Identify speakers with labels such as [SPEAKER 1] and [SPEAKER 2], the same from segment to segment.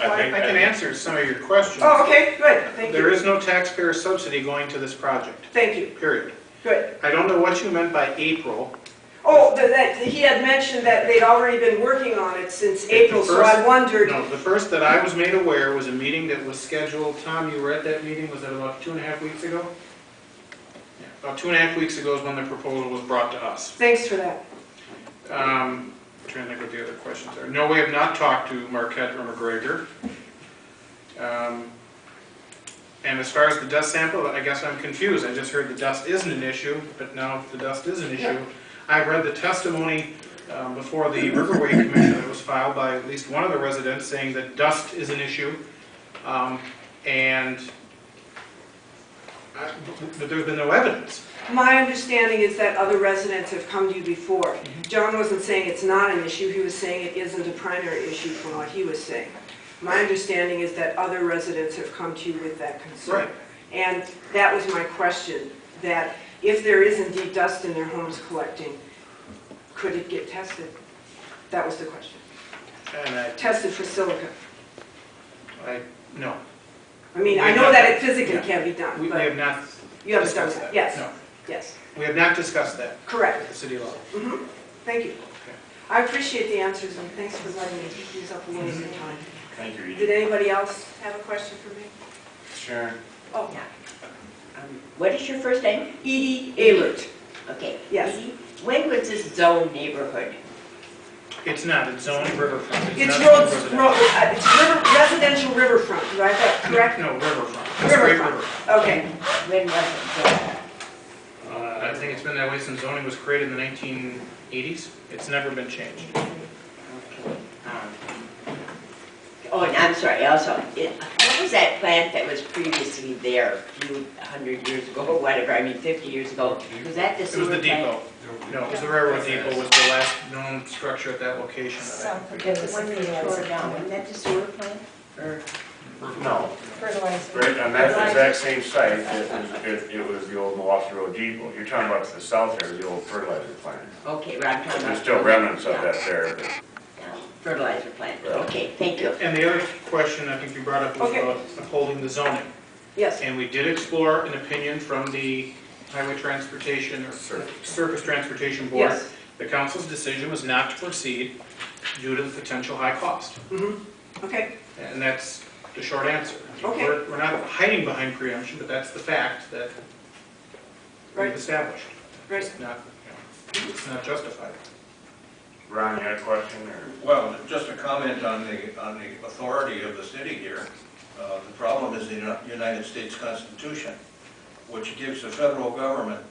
[SPEAKER 1] I think,
[SPEAKER 2] I can answer some of your questions.
[SPEAKER 3] Oh, okay, good, thank
[SPEAKER 2] There
[SPEAKER 3] you.
[SPEAKER 2] is no taxpayer subsidy going to this project,
[SPEAKER 3] Thank you,
[SPEAKER 2] period.
[SPEAKER 3] good.
[SPEAKER 2] I don't know what you meant by April.
[SPEAKER 3] Oh, th- that, he had mentioned that they'd already been working on it since April, so I
[SPEAKER 2] first-
[SPEAKER 3] wondered,
[SPEAKER 2] No, the first that I was made aware was a meeting that was scheduled, Tom, you were at that meeting, was that about two and a half weeks ago? Yeah, About two and a half weeks ago is when the proposal was brought to us.
[SPEAKER 3] thanks for that.
[SPEAKER 2] Um, Trying to think what the other questions are. No, we have not talked to Marquette or McGregor. Um, And as far as the dust sample, I guess I'm confused. I just heard the dust isn't an issue, but now if the dust is an issue. I read the testimony um, before the Riverway Commission that was filed by at least one of the residents saying that dust is an issue. Um, And, I- but there's been no evidence.
[SPEAKER 3] My understanding is that other residents have come to you before.
[SPEAKER 2] Mm-hmm.
[SPEAKER 3] John wasn't saying it's not an issue, he was saying it isn't a primary issue from what he was saying. My understanding is that other residents have come to you with that concern.
[SPEAKER 2] Right.
[SPEAKER 3] And that was my question, that if there is indeed dust in their homes collecting, could it get tested? That was the question.
[SPEAKER 2] And I,
[SPEAKER 3] Tested for silica.
[SPEAKER 2] I, no,
[SPEAKER 3] I mean, I know that it physically can be
[SPEAKER 2] we
[SPEAKER 3] done,
[SPEAKER 2] we
[SPEAKER 3] but
[SPEAKER 2] have not
[SPEAKER 3] you haven't done
[SPEAKER 2] discussed
[SPEAKER 3] that.
[SPEAKER 2] that.
[SPEAKER 3] Yes,
[SPEAKER 2] No.
[SPEAKER 3] yes,
[SPEAKER 2] We have not discussed that
[SPEAKER 3] correct. Mm-hmm.
[SPEAKER 2] at the city level.
[SPEAKER 3] Thank you. I appreciate the answers, and thanks for letting me use up a little of your time.
[SPEAKER 1] Thank you,
[SPEAKER 3] Did anybody else have a question for me?
[SPEAKER 1] Sharon.
[SPEAKER 3] Oh,
[SPEAKER 4] Um, What is your first name?
[SPEAKER 3] Edie Aylert.
[SPEAKER 4] Okay.
[SPEAKER 3] Yes.
[SPEAKER 4] Edie. When was this zone neighborhood?
[SPEAKER 2] It's not, it's zoned riverfront.
[SPEAKER 3] It's
[SPEAKER 2] not
[SPEAKER 3] roads,
[SPEAKER 2] residential.
[SPEAKER 3] road, uh, it's river, residential riverfront, do I have that correct?
[SPEAKER 2] No, riverfront. It's Great
[SPEAKER 3] Riverfront.
[SPEAKER 2] River.
[SPEAKER 3] Okay,
[SPEAKER 4] When was it zoned?
[SPEAKER 2] Uh, I think it's been that way since zoning was created in the 1980s. It's never been changed. Um,
[SPEAKER 4] Okay. um, Oh, and I'm sorry, also, it- what was that plant that was previously there a few hundred years ago, or whatever, I mean fifty years ago? Was that
[SPEAKER 2] It
[SPEAKER 4] the
[SPEAKER 2] was the
[SPEAKER 4] sewer plant?
[SPEAKER 2] depot. No, it was the railroad depot was the last known structure at that location. that
[SPEAKER 4] The one they tore down, wasn't that the sewer plant? Or,
[SPEAKER 2] I-
[SPEAKER 5] No,
[SPEAKER 6] fertilizer.
[SPEAKER 5] right on that exact same site, it was, it- it was the old Milwaukee Road Depot. You're talking about to the south there, the old fertilizer plant.
[SPEAKER 4] okay, well, I'm talking about.
[SPEAKER 5] There's still remnants of that there, but
[SPEAKER 4] Yeah, Fertilizer plant, okay, thank you.
[SPEAKER 2] And the other question I think you brought up was
[SPEAKER 3] Okay.
[SPEAKER 2] about upholding the zoning.
[SPEAKER 3] yes,
[SPEAKER 2] And we did explore an opinion from the Highway Transportation or Surface Transportation Board.
[SPEAKER 3] yes.
[SPEAKER 2] The council's decision was not to proceed due to the potential high cost.
[SPEAKER 3] Mhm. Okay,
[SPEAKER 2] And that's the short answer.
[SPEAKER 3] Okay.
[SPEAKER 2] We're, we're not hiding behind preemption, but that's the fact that we've
[SPEAKER 3] Right.
[SPEAKER 2] established.
[SPEAKER 3] Right.
[SPEAKER 2] It's not, you know, it's not justified.
[SPEAKER 5] Ron, you had a question or?
[SPEAKER 6] Well, just a comment on the, on the authority of the city here. Uh, The problem is the Uni- United States Constitution, which gives the federal government,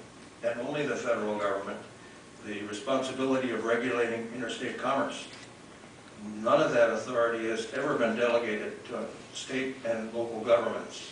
[SPEAKER 6] and only the federal government, the responsibility of regulating interstate commerce. None of that authority has ever been delegated to state and local governments.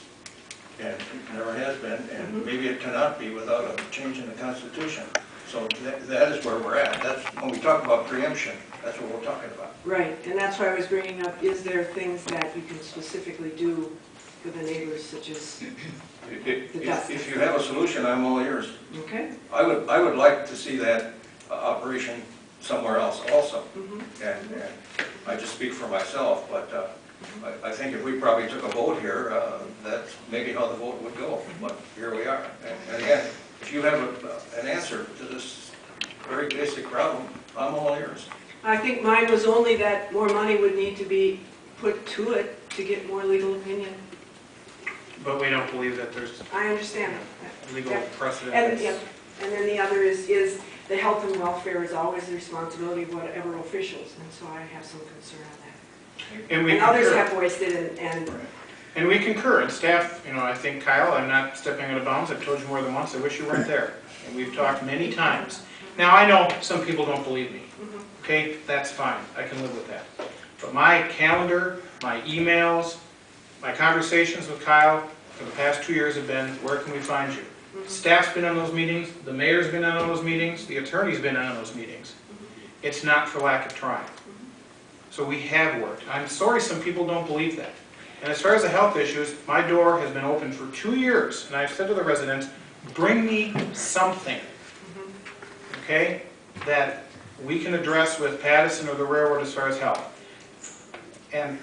[SPEAKER 6] And it never has been, and maybe it cannot be without a change in the Constitution. So that, that is where we're at. That's, when we talk about preemption, that's what we're talking about.
[SPEAKER 3] right, and that's why I was bringing up, is there things that you can specifically do for the neighbors such as,
[SPEAKER 6] If- If,
[SPEAKER 3] The dust.
[SPEAKER 6] if- if you have a solution, I'm all ears.
[SPEAKER 3] okay?
[SPEAKER 6] I would, I would like to see that uh, operation somewhere else also.
[SPEAKER 3] Mhm.
[SPEAKER 6] And, and I just speak for myself, but uh, I, I think if we probably took a vote here, uh, that's maybe how the vote would go, but here we are. And- And again, if you have a- an answer to this very basic problem, I'm all ears.
[SPEAKER 3] I think mine was only that more money would need to be put to it to get more legal opinion.
[SPEAKER 2] But we don't believe that there's
[SPEAKER 3] I understand that.
[SPEAKER 2] legal
[SPEAKER 3] Yeah.
[SPEAKER 2] precedent.
[SPEAKER 3] And, yeah, and then the other is, is the health and welfare is always the responsibility of whatever officials, and so I have some concern on
[SPEAKER 2] And
[SPEAKER 3] that.
[SPEAKER 2] we
[SPEAKER 3] And others
[SPEAKER 2] concur.
[SPEAKER 3] have voiced it, and, and,
[SPEAKER 2] And we concur, and staff, you know, I think Kyle, I'm not stepping out of bounds, I've told you more than once, I wish you weren't there. And we've talked many times. Now, I know some people don't believe me, okay, that's fine, I can live with that. But my calendar, my emails, my conversations with Kyle for the past two years have been, where can we find you? Staff's been on those meetings, the mayor's been on those meetings, the attorney's been on those meetings. It's not for lack of trying. So we have worked. I'm sorry some people don't believe that. And as far as the health issues, my door has been open for two years, and I've said to the residents, bring me something, okay, that we can address with Pattison or the railroad as far as health. And